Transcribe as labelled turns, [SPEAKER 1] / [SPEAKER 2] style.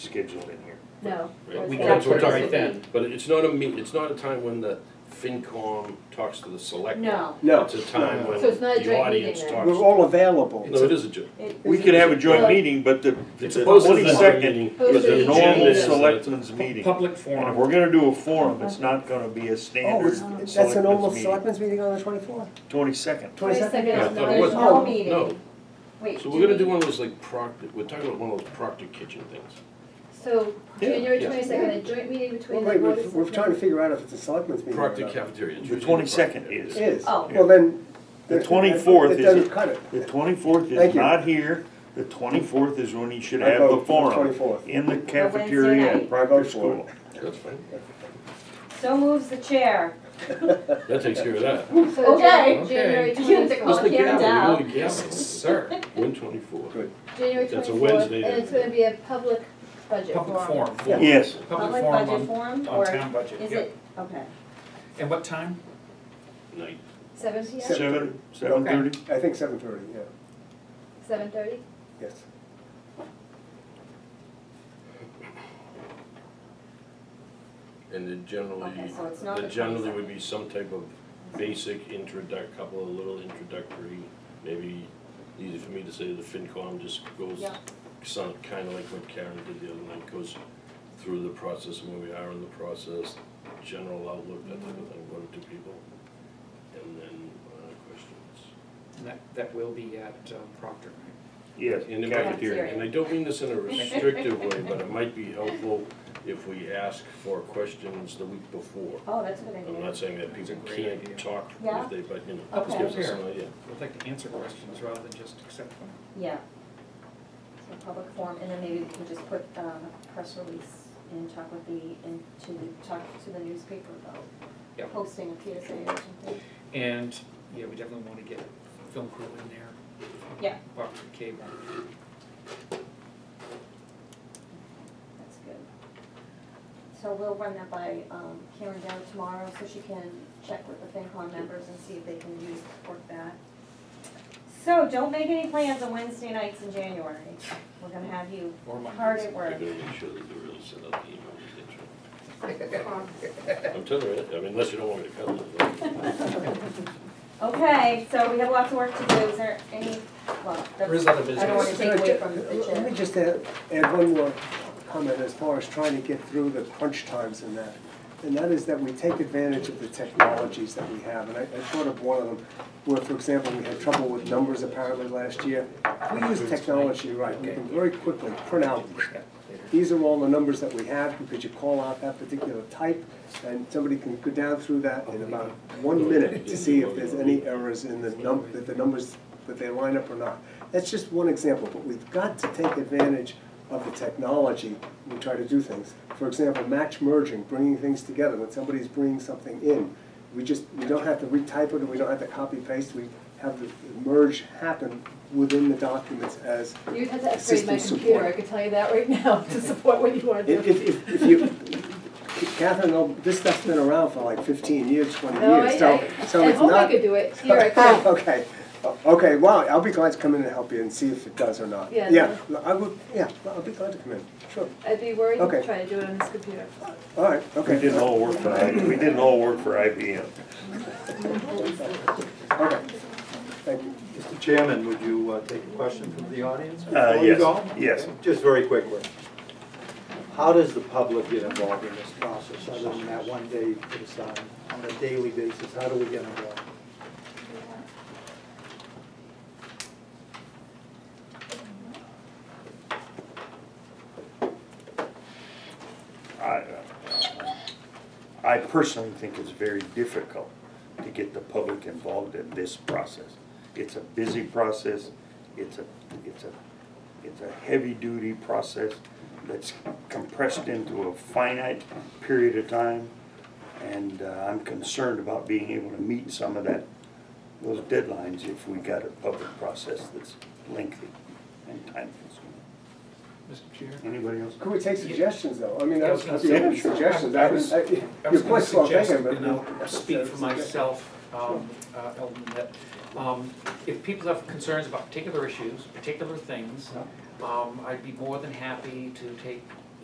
[SPEAKER 1] scheduled in here.
[SPEAKER 2] No.
[SPEAKER 3] Right,
[SPEAKER 2] there's
[SPEAKER 3] We
[SPEAKER 2] not.
[SPEAKER 3] can
[SPEAKER 4] That's what
[SPEAKER 3] put
[SPEAKER 4] it's
[SPEAKER 3] right then.
[SPEAKER 1] But it's not a meet, it's not a time when the FinCom talks to the selectmen.
[SPEAKER 2] No,
[SPEAKER 4] No,
[SPEAKER 1] It's a time when
[SPEAKER 2] So it's not a
[SPEAKER 1] the
[SPEAKER 2] joint
[SPEAKER 1] audience
[SPEAKER 2] meeting
[SPEAKER 1] talks.
[SPEAKER 4] we're all available.
[SPEAKER 1] No, it is a joint.
[SPEAKER 5] We could have a joint meeting, but the,
[SPEAKER 1] It's
[SPEAKER 5] the
[SPEAKER 1] supposed to be a joint
[SPEAKER 5] twenty-second
[SPEAKER 1] meeting.
[SPEAKER 2] Supposed
[SPEAKER 5] is
[SPEAKER 2] to be
[SPEAKER 5] a
[SPEAKER 2] a joint
[SPEAKER 5] normal
[SPEAKER 2] meeting.
[SPEAKER 5] selectmen's meeting. And
[SPEAKER 3] Public
[SPEAKER 5] if
[SPEAKER 3] forum,
[SPEAKER 5] we're gonna do a forum, it's not gonna be a
[SPEAKER 4] Oh,
[SPEAKER 5] standard
[SPEAKER 4] it's- that's an normal
[SPEAKER 5] selectmen's meeting.
[SPEAKER 4] selectmen's meeting on the twenty-fourth?
[SPEAKER 5] Twenty-second.
[SPEAKER 2] Twenty-second
[SPEAKER 1] Yeah,
[SPEAKER 2] is
[SPEAKER 1] I thought
[SPEAKER 2] not
[SPEAKER 1] it
[SPEAKER 2] a
[SPEAKER 1] was.
[SPEAKER 2] small
[SPEAKER 4] Oh,
[SPEAKER 1] No,
[SPEAKER 2] meeting. Wait,
[SPEAKER 1] so
[SPEAKER 2] do
[SPEAKER 1] we're gonna do
[SPEAKER 2] we-
[SPEAKER 1] one of those like Proctor, we're talking about one of those Proctor kitchen things.
[SPEAKER 2] So
[SPEAKER 5] Yeah.
[SPEAKER 2] January
[SPEAKER 1] Yeah.
[SPEAKER 2] twenty-second, a joint meeting between
[SPEAKER 4] Well,
[SPEAKER 2] the
[SPEAKER 4] wait,
[SPEAKER 2] board
[SPEAKER 4] we're,
[SPEAKER 2] of.
[SPEAKER 4] we're trying to figure out if it's a selectmen's meeting. or
[SPEAKER 1] Proctor
[SPEAKER 4] not.
[SPEAKER 1] cafeteria. it's
[SPEAKER 5] The
[SPEAKER 1] usually
[SPEAKER 5] twenty-second
[SPEAKER 1] Proctor.
[SPEAKER 5] is.
[SPEAKER 4] Is,
[SPEAKER 2] Oh.
[SPEAKER 4] well then.
[SPEAKER 5] The
[SPEAKER 4] that-
[SPEAKER 5] 24th
[SPEAKER 4] That
[SPEAKER 5] is
[SPEAKER 4] doesn't
[SPEAKER 5] a-
[SPEAKER 4] cut it.
[SPEAKER 5] The twenty-fourth is
[SPEAKER 4] Thank you.
[SPEAKER 5] not here, the twenty-fourth is when you should
[SPEAKER 4] I
[SPEAKER 5] have the
[SPEAKER 4] vote for the
[SPEAKER 5] forum
[SPEAKER 4] 24th.
[SPEAKER 5] in the
[SPEAKER 2] Wednesday
[SPEAKER 5] cafeteria
[SPEAKER 2] night.
[SPEAKER 5] at
[SPEAKER 4] I
[SPEAKER 5] Proctor
[SPEAKER 4] vote for
[SPEAKER 5] School.
[SPEAKER 1] That's fine,
[SPEAKER 6] So moves the chair.
[SPEAKER 1] that takes care of that.
[SPEAKER 2] So Jan-
[SPEAKER 3] Okay.
[SPEAKER 2] January
[SPEAKER 6] You have to call
[SPEAKER 1] That's
[SPEAKER 2] twenty-fourth,
[SPEAKER 1] the
[SPEAKER 6] it Karen
[SPEAKER 1] gavel, we
[SPEAKER 6] down.
[SPEAKER 1] go to gavel,
[SPEAKER 3] sir,
[SPEAKER 1] one twenty-four.
[SPEAKER 2] January
[SPEAKER 1] That's
[SPEAKER 2] twenty-fourth,
[SPEAKER 1] a
[SPEAKER 2] and
[SPEAKER 1] Wednesday then.
[SPEAKER 2] it's gonna be a public budget
[SPEAKER 3] public
[SPEAKER 2] forum.
[SPEAKER 3] forum.
[SPEAKER 5] Yes,
[SPEAKER 3] Public
[SPEAKER 6] budget
[SPEAKER 3] forum on,
[SPEAKER 6] forum
[SPEAKER 3] on
[SPEAKER 6] or
[SPEAKER 3] town budget,
[SPEAKER 6] is
[SPEAKER 3] yeah.
[SPEAKER 6] it, okay.
[SPEAKER 3] And what time?
[SPEAKER 1] Night,
[SPEAKER 2] Seven P M,
[SPEAKER 5] seven, seven thirty.
[SPEAKER 4] I think seven thirty, yeah,
[SPEAKER 2] seven thirty?
[SPEAKER 4] yes.
[SPEAKER 1] and then
[SPEAKER 6] Okay,
[SPEAKER 1] generally,
[SPEAKER 6] so it's not
[SPEAKER 1] then
[SPEAKER 6] the
[SPEAKER 1] generally would
[SPEAKER 6] 22nd.
[SPEAKER 1] be some type of basic introduct, couple of little introductory, maybe easy for me to say, the FinCom just goes,
[SPEAKER 6] Yeah.
[SPEAKER 1] sound kind of like what Karen did the other night, goes through the process and where we are in the process, general outlook, that
[SPEAKER 6] Mm-hmm.
[SPEAKER 1] type of thing, one or two people, and then uh, questions.
[SPEAKER 3] And that, that will be at um, Proctor, right?
[SPEAKER 5] Yes,
[SPEAKER 1] In the
[SPEAKER 6] Cafeteria.
[SPEAKER 1] cafeteria, and I don't mean this in a restrictive way, but it might be helpful if we ask for questions the week before.
[SPEAKER 6] Oh, that's a good
[SPEAKER 1] I'm
[SPEAKER 6] idea.
[SPEAKER 1] not saying that
[SPEAKER 3] That's a
[SPEAKER 1] people
[SPEAKER 3] great idea.
[SPEAKER 1] can't talk
[SPEAKER 6] Yeah.
[SPEAKER 1] if they, but you know,
[SPEAKER 6] Up
[SPEAKER 1] this gives us
[SPEAKER 3] here.
[SPEAKER 1] an idea.
[SPEAKER 3] We'd like to answer questions rather than just accept them.
[SPEAKER 6] Yeah. So public forum, and then maybe we can just put um, a press release and talk with the, and to, talk to the newspaper
[SPEAKER 3] Yeah.
[SPEAKER 6] about hosting a PSA or something.
[SPEAKER 3] And, yeah, we definitely want to get film crew in there.
[SPEAKER 6] Yeah.
[SPEAKER 3] Proctor Cable.
[SPEAKER 6] That's good. So we'll run that by um, Karen down tomorrow, so she can check with the FinCon members and see if they can use, work that. So don't make any plans on Wednesday nights in January. We're gonna have you
[SPEAKER 3] Or Mondays.
[SPEAKER 6] hard at
[SPEAKER 1] They're
[SPEAKER 6] work.
[SPEAKER 1] gonna make sure that they really send out the email. I'm telling you, I mean, unless you don't want me to cut it.
[SPEAKER 6] Okay, so we have lots of work to do. Is there any, well,
[SPEAKER 3] There is
[SPEAKER 6] that's,
[SPEAKER 3] other
[SPEAKER 6] I don't wanna
[SPEAKER 3] business.
[SPEAKER 6] take away from the
[SPEAKER 4] uh, Let me
[SPEAKER 6] chair.
[SPEAKER 4] just add, add one more comment as far as trying to get through the crunch times and that. And that is that we take advantage of the technologies that we have, and I, I thought of one of them, where, for example, we had trouble with numbers apparently last year. We use technology, right, we can very quickly print out
[SPEAKER 3] Yeah, later.
[SPEAKER 4] these are all the numbers that we have, because you call out that particular type, and somebody can go down through that in about one minute to see if there's any errors in the num, that the numbers, that they line up or not. That's just one example, but we've got to take advantage of the technology when we try to do things. For example, match merging, bringing things together, when somebody's bringing something in, we just, we don't have to retype it, and we don't have to copy paste, we have the merge happen within the documents as
[SPEAKER 2] You'd have to upgrade my
[SPEAKER 4] Assistant
[SPEAKER 2] computer, I
[SPEAKER 4] support.
[SPEAKER 2] could tell you that right now, to support what you wanna
[SPEAKER 4] If,
[SPEAKER 2] do.
[SPEAKER 4] if- if, if you, Catherine, oh, this stuff's been around for like fifteen years, twenty
[SPEAKER 2] No, I,
[SPEAKER 4] years, so, so
[SPEAKER 2] I, I
[SPEAKER 4] it's
[SPEAKER 2] hope I
[SPEAKER 4] not.
[SPEAKER 2] could do it, here I could.
[SPEAKER 4] Okay, O- okay, well, I'll be glad to come in and help you and see if it does or not.
[SPEAKER 2] Yeah,
[SPEAKER 4] l- I would, yeah, I'll be glad to come in, sure,
[SPEAKER 2] I'd be worried to
[SPEAKER 4] Okay.
[SPEAKER 2] try to do it on this computer.
[SPEAKER 4] all right, okay.
[SPEAKER 5] We didn't all work for, I- we didn't all work for IBM.
[SPEAKER 4] Okay, thank you.
[SPEAKER 7] Mr. Chairman, would you uh, take a question from the audience?
[SPEAKER 5] Uh,
[SPEAKER 7] before you go?
[SPEAKER 5] yes, yes.
[SPEAKER 7] Just very quickly. How does the public get involved in this process, other than that one day you put aside? On a daily basis, how do we get involved?
[SPEAKER 5] I, I personally think it's very difficult to get the public involved in this process. It's a busy process, it's a, it's a, it's a heavy-duty process that's compressed into a finite period of time. And uh, I'm concerned about being able to meet some of that, those deadlines if we got a public process that's lengthy and time-consuming.
[SPEAKER 3] Mr. Chair?
[SPEAKER 5] Anybody else?
[SPEAKER 4] Could we take suggestions, though? I mean, I
[SPEAKER 3] Yeah, I
[SPEAKER 4] was
[SPEAKER 3] was gonna
[SPEAKER 4] happy open
[SPEAKER 5] say, sure.
[SPEAKER 4] suggestions,
[SPEAKER 3] I- I
[SPEAKER 4] I was,
[SPEAKER 3] was-
[SPEAKER 4] I-
[SPEAKER 3] I
[SPEAKER 4] you're
[SPEAKER 3] was
[SPEAKER 4] quite
[SPEAKER 3] gonna
[SPEAKER 4] slow
[SPEAKER 3] suggest,
[SPEAKER 4] thinking, but.
[SPEAKER 3] and I'll speak for
[SPEAKER 4] Yeah, it's okay.
[SPEAKER 3] myself, um, uh, Eldon, that, um, if people have concerns about particular issues, particular things, um, I'd be more than happy to take